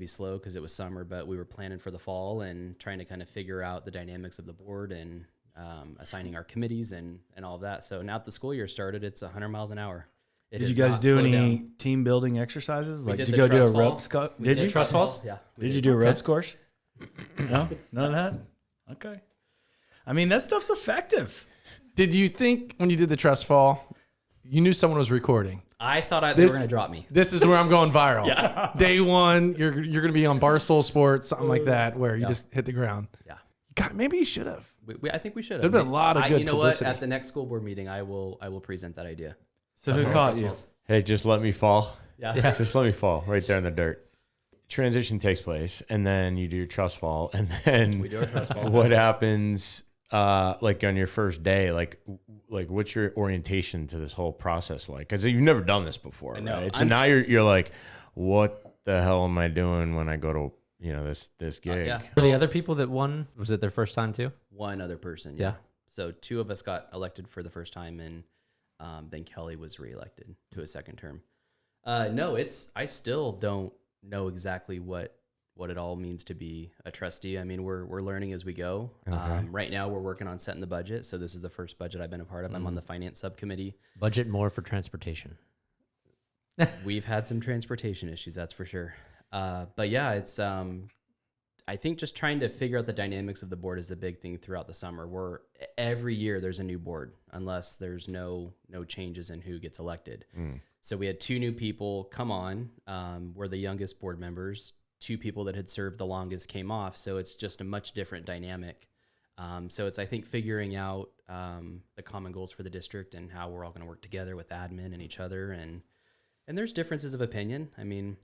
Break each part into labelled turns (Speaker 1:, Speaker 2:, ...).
Speaker 1: be slow because it was summer, but we were planning for the fall and trying to kind of figure out the dynamics of the board and um, assigning our committees and and all of that. So now that the school year started, it's 100 miles an hour. It
Speaker 2: Did
Speaker 1: is
Speaker 2: you guys
Speaker 1: not
Speaker 2: do
Speaker 1: slowed
Speaker 2: any
Speaker 1: down.
Speaker 2: team building exercises? Like,
Speaker 1: did
Speaker 2: did, you
Speaker 1: the
Speaker 2: go do a
Speaker 1: trust fall.
Speaker 2: ropes? Co-
Speaker 1: We
Speaker 2: did, you?
Speaker 1: trust
Speaker 2: Trust
Speaker 1: falls? Yeah. we
Speaker 2: Did you do a ropes course? No, none of that. Okay. I mean, that stuff's effective.
Speaker 3: Did you think when you did the trust fall, you knew someone was recording?
Speaker 1: I thought I, they were
Speaker 3: This-
Speaker 1: going to drop me.
Speaker 3: This is where I'm going viral. Day one, you're you're gonna be on Barstool Sports, something like that, where you just hit the ground.
Speaker 1: Yeah.
Speaker 3: God, maybe you should have.
Speaker 1: We, we, I think we should have.
Speaker 3: There'd been a lot of
Speaker 1: I-
Speaker 3: good
Speaker 1: You know
Speaker 3: publicity.
Speaker 1: what? At the next school board meeting, I will I will present that idea.
Speaker 2: So who caught you?
Speaker 4: Hey, just let me fall.
Speaker 1: Yeah.
Speaker 4: Just let me fall right there in the dirt. Transition takes place, and then you do your trust fall, and then
Speaker 1: We do our trust fall.
Speaker 4: what happens? Uh, like on your first day, like, like what's your orientation to this whole process like? Because you've never done this before,
Speaker 1: know.
Speaker 4: right? So
Speaker 1: I'm
Speaker 4: now
Speaker 1: s-
Speaker 4: you're you're like, what the hell am I doing when I go to you know this this gig?
Speaker 1: Uh, yeah.
Speaker 5: Were the other people that won? Was it their first time too?
Speaker 1: One other person.
Speaker 5: Yeah.
Speaker 1: So two of us got elected for the first time, and um, then Kelly was reelected to a second term. Uh, no, it's I still don't know exactly what what it all means to be a trustee. I mean, we're we're learning as we go. Um, right now, we're working on setting the budget. So this is the first budget I've been a part of. I'm on the finance subcommittee.
Speaker 5: Budget more for transportation.
Speaker 1: we've had some transportation issues, that's for sure. Uh, but yeah, it's um, I think just trying to figure out the dynamics of the board is the big thing throughout the summer. Where every year there's a new board, unless there's no no changes in who gets elected. So we had two new people come on. Um, we're the youngest board members. Two people that had served the longest came off. So it's just a much different dynamic. Um, so it's I think figuring out um, the common goals for the district and how we're all going to work together with admin and each other and and there's differences of opinion. I mean,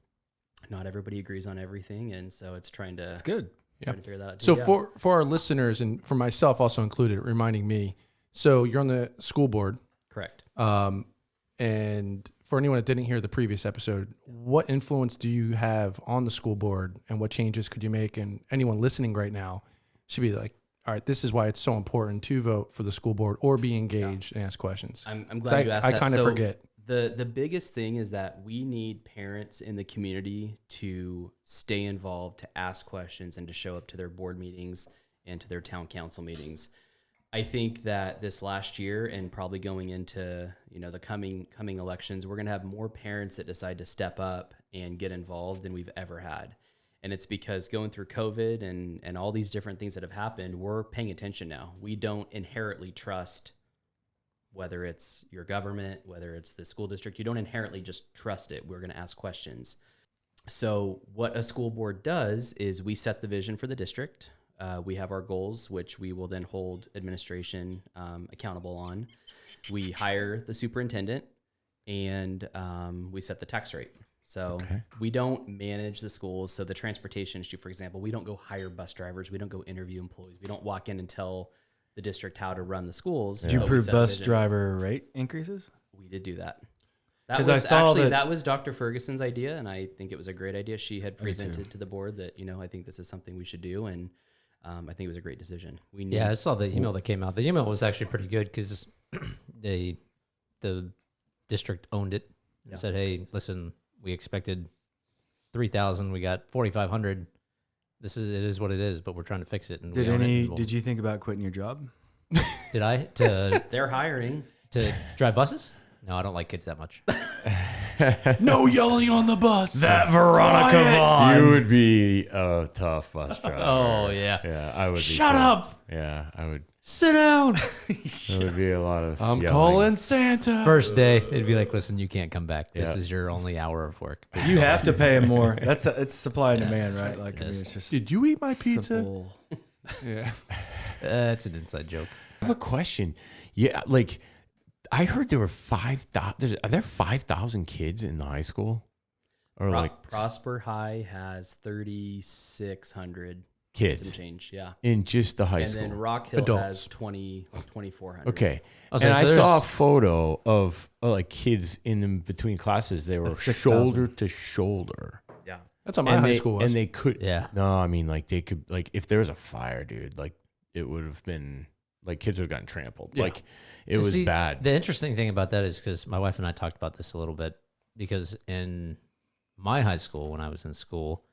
Speaker 1: not everybody agrees on everything, and so it's trying to,
Speaker 2: It's good.
Speaker 1: trying to figure that out. too.
Speaker 3: So
Speaker 1: Yeah.
Speaker 3: for for our listeners and for myself also included, reminding me. So you're on the school board,
Speaker 1: correct,
Speaker 3: um, and for anyone that didn't hear the previous episode, what influence do you have on the school board, and what changes could you make? And anyone listening right now should be like, all right, this is why it's so important to vote for the school board or be engaged and ask questions.
Speaker 1: I'm, I'm
Speaker 3: 'Cause
Speaker 1: glad
Speaker 3: I-
Speaker 1: you asked.
Speaker 3: I
Speaker 1: that.
Speaker 3: kind of
Speaker 1: So
Speaker 3: forget.
Speaker 1: the the biggest thing is that we need parents in the community to stay involved, to ask questions, and to show up to their board meetings and to their town council meetings. I think that this last year and probably going into you know the coming coming elections, we're going to have more parents that decide to step up and get involved than we've ever had. And it's because going through COVID and and all these different things that have happened, we're paying attention now. We don't inherently trust whether it's your government, whether it's the school district, you don't inherently just trust it. We're going to ask questions. So, what a school board does is we set the vision for the district. Uh, we have our goals, which we will then hold administration um, accountable on. We hire the superintendent and um, we set the tax rate. So, we don't manage the schools. So, the transportation issue, for example, we don't go hire bus drivers, we don't go interview employees, we don't walk in and tell the district how to run the schools.
Speaker 2: Did you
Speaker 1: but we
Speaker 2: approve
Speaker 1: set the
Speaker 2: bus
Speaker 1: vision.
Speaker 2: driver rate increases?
Speaker 1: We did do that. That
Speaker 2: 'Cause
Speaker 1: was
Speaker 2: I saw
Speaker 1: actually
Speaker 2: that-
Speaker 1: that, was Dr. Ferguson's idea, and I think it was a great idea. She had presented to the board that you know I think this is something we should do, and um, I think it was a great decision. We need
Speaker 5: Yeah, I saw the email that came out. The email was actually pretty good because they the district owned it and said, "Hey, listen, we expected three thousand, we got forty five hundred. This is it is what it is, but we're trying to fix it." And
Speaker 2: Did
Speaker 5: we own it,
Speaker 2: any?
Speaker 5: and we'll-"
Speaker 2: Did you think about quitting your job?
Speaker 5: Did I to
Speaker 1: they're hiring.
Speaker 5: to drive buses? No, I don't like kids that much.
Speaker 3: no yelling on the bus.
Speaker 2: That Veronica Vaughn.
Speaker 4: You would be a tough bus driver.
Speaker 5: Oh, yeah.
Speaker 4: yeah. I would.
Speaker 3: Shut
Speaker 4: be too.
Speaker 3: up.
Speaker 4: Yeah, I would.
Speaker 5: Sit down.
Speaker 4: There would be a lot of.
Speaker 3: I'm
Speaker 4: yelling.
Speaker 3: calling Santa.
Speaker 5: First day, it'd be like, "Listen, you can't come back. This
Speaker 4: Yeah.
Speaker 5: is your only hour of work."
Speaker 2: You have to pay him more. That's a, it's supply and demand, right? Like I mean,
Speaker 5: Yes.
Speaker 2: it's just
Speaker 3: Did you eat my pizza?
Speaker 2: simple.
Speaker 3: Yeah.
Speaker 5: That's uh, an inside joke.
Speaker 4: I have a question. Yeah, like I heard there were five thousand. Are there five thousand kids in the high school, or
Speaker 1: Pro-
Speaker 4: like
Speaker 1: Prosper High has thirty six hundred some
Speaker 4: kids
Speaker 1: change, yeah,
Speaker 4: in just the high
Speaker 1: and
Speaker 4: school?
Speaker 1: then Rock Hill
Speaker 3: Adults.
Speaker 1: has 20, 2,400.
Speaker 4: okay,
Speaker 5: Oh, so
Speaker 4: and I
Speaker 5: there's-
Speaker 4: saw a photo of uh, like kids in them between classes. They were
Speaker 2: That's 6,000.
Speaker 4: shoulder to shoulder.
Speaker 1: yeah,
Speaker 3: That's how my
Speaker 4: and
Speaker 3: high
Speaker 4: they,
Speaker 3: school was.
Speaker 4: and they could.
Speaker 5: Yeah.
Speaker 4: No, I mean like they could like if there was a fire, dude. Like it would have been like kids would have gotten trampled.
Speaker 3: Yeah.
Speaker 4: Like it
Speaker 5: You
Speaker 4: was
Speaker 5: see,
Speaker 4: bad.
Speaker 5: The interesting thing about that is because my wife and I talked about this a little bit because in my high school, when I was in school,